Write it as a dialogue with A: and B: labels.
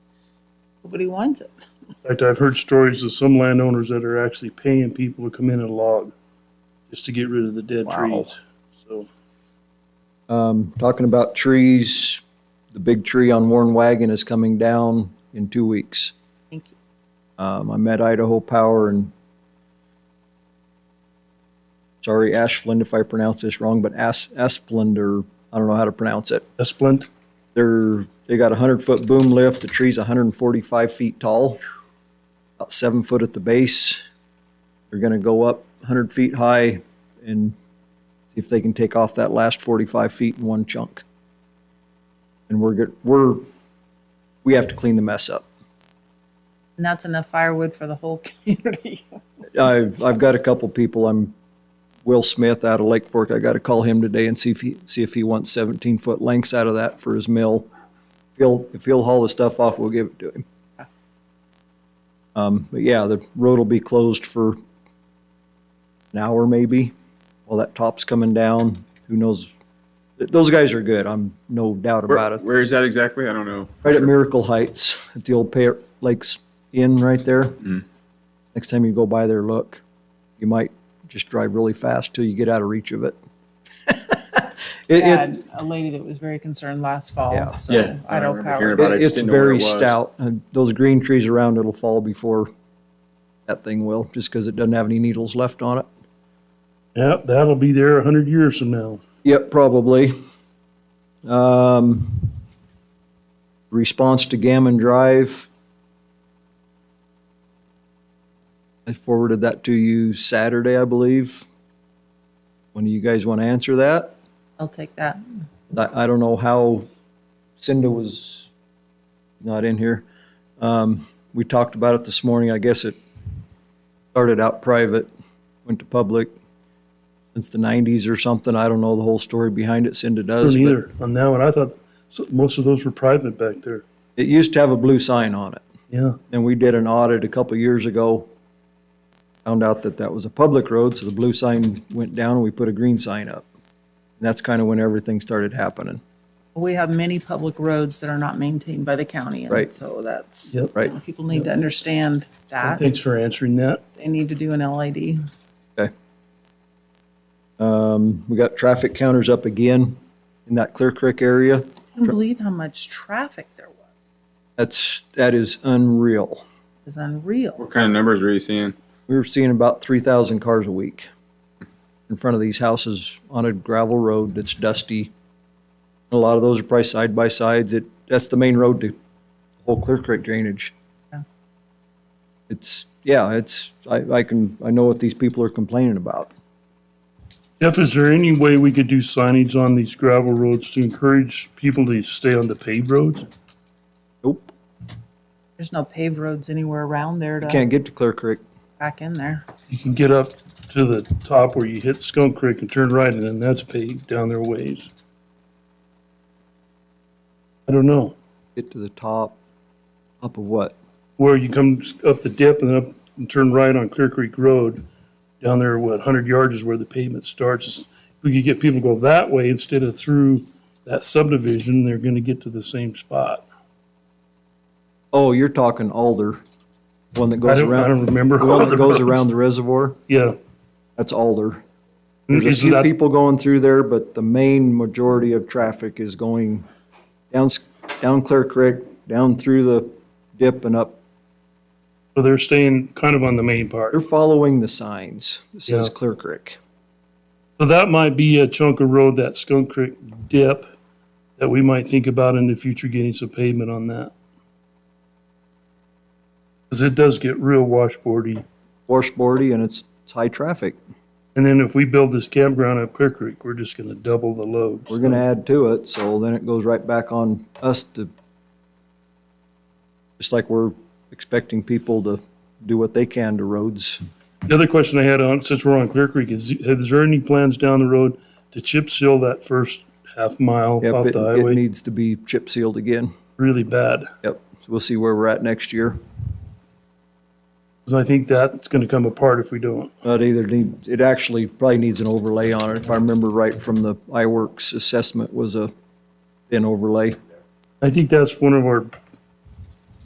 A: Nobody wants it.
B: In fact, I've heard stories of some landowners that are actually paying people to come in and log just to get rid of the dead
C: Wow.
B: trees. So,
C: Talking about trees, the big tree on Warren Wagon is coming down in two weeks.
A: Thank you.
C: Um, I met Idaho Power and sorry, Ashland, if I pronounce this wrong, but As- Asplund or I don't know how to pronounce it.
B: Esplin,
C: They're, they got a hundred foot boom lift. The tree's hundred and forty-five feet tall, about seven foot at the base. They're gonna go up hundred feet high and see if they can take off that last forty-five feet in one chunk. And we're good, we're, we have to clean the mess up.
A: And that's enough firewood for the whole community.
C: I've, I've got a couple people, I'm, Will Smith out of Lake Fork, I gotta call him today and see if he, see if he wants seventeen foot lengths out of that for his mill. If he'll, if he'll haul the stuff off, we'll give it to him. Um, but yeah, the road will be closed for an hour maybe, while that top's coming down, who knows? Th- Those guys are good, I'm no doubt about it.
D: Where is that exactly? I don't know.
C: Right at Miracle Heights, at the old Pear Lakes Inn right there.
D: Mm-hmm.
C: Next time you go by there, look. You might just drive really fast till you get out of reach of it. It-
A: I
C: it-
A: had a lady that was very concerned last fall,
C: Yeah.
A: so I don't
D: remember hearing
A: power.
D: about it. I
C: it-
D: just
C: It's
D: didn't know where
C: very
D: it was.
C: stout. and Those green trees around it'll fall before that thing will, just because it doesn't have any needles left on it.
B: yep, that'll be there a hundred years from now.
C: Yep, probably. Um, response to Gammon Drive. I forwarded that to you Saturday, I believe. When do you guys want to answer that?
A: I'll take that.
C: I, I don't know how Cinda was not in here. Um, we talked about it this morning. I guess it started out private, went to public since the nineties or something. I don't know the whole story behind it. Cinda does.
B: Don't
C: but
B: either on that one. I thought so- most of those were private back there.
C: It used to have a blue sign on it.
B: Yeah,
C: And we did an audit a couple years ago. Found out that that was a public road, so the blue sign went down and we put a green sign up. And that's kind of when everything started happening.
A: We have many public roads that are not maintained by the county, and
C: Right.
A: so that's,
B: Yep.
C: Right.
A: people need to understand that.
B: thanks for answering that.
A: They need to do an LID.
C: Okay. Um, we got traffic counters up again in that Clear Creek area.
A: I can't believe how much traffic there was.
C: That's, that is unreal.
A: It's unreal.
D: What kind of numbers were you seeing?
C: We were seeing about three thousand cars a week in front of these houses on a gravel road that's dusty. A lot of those are probably side by sides. It, that's the main road to the whole Clear Creek drainage.
A: Yeah.
C: It's, yeah, it's, I, I can, I know what these people are complaining about.
B: Jeff, is there any way we could do signage on these gravel roads to encourage people to stay on the paved roads?
C: Nope,
A: There's no paved roads anywhere around there to
C: can't get to Clear Creek.
A: back in there.
B: You can get up to the top where you hit Skunk Creek and turn right, and then that's paved down their ways. I don't know.
C: Get to the top, up of what?
B: where you come up the dip and then up and turn right on Clear Creek Road. Down there, what, 100 yards is where the pavement starts. It's- If we could get people to go that way instead of through that subdivision, they're going to get to the same spot.
C: Oh, you're talking Alder, one that
B: I
C: goes
B: don't, I
C: around,
B: don't remember.
C: the
B: all
C: one that
B: the
C: goes
B: roads.
C: around the reservoir.
B: Yeah.
C: That's Alder. There's a
B: Is
C: few
B: that,
C: people going through there, but the main majority of traffic is going down, S- down Clear Creek, down through the dip and up.
B: so they're staying kind of on the main part.
C: They're following the signs. It says
B: Yeah.
C: Clear Creek.
B: So that might be a chunk of road, that Skunk Creek dip, that we might think about in the future getting some pavement on that. Because it does get real washboardy.
C: Washboardy and it's, it's high traffic.
B: And then if we build this campground up Clear Creek, we're just gonna double the load.
C: We're gonna add to it, so then it goes right back on us to, just like we're expecting people to do what they can to roads.
B: The other question I had on, since we're on Clear Creek, is, is there any plans down the road to chip seal that first half mile
C: Yep,
B: off
C: it,
B: the
C: it
B: highway?
C: needs to be chip sealed again.
B: Really bad.
C: Yep, so we'll see where we're at next year.
B: Cause I think that's gonna come apart if we don't.
C: But either need, it actually probably needs an overlay on it. If I remember right from the iWorks assessment was a thin overlay.
B: I think that's one of our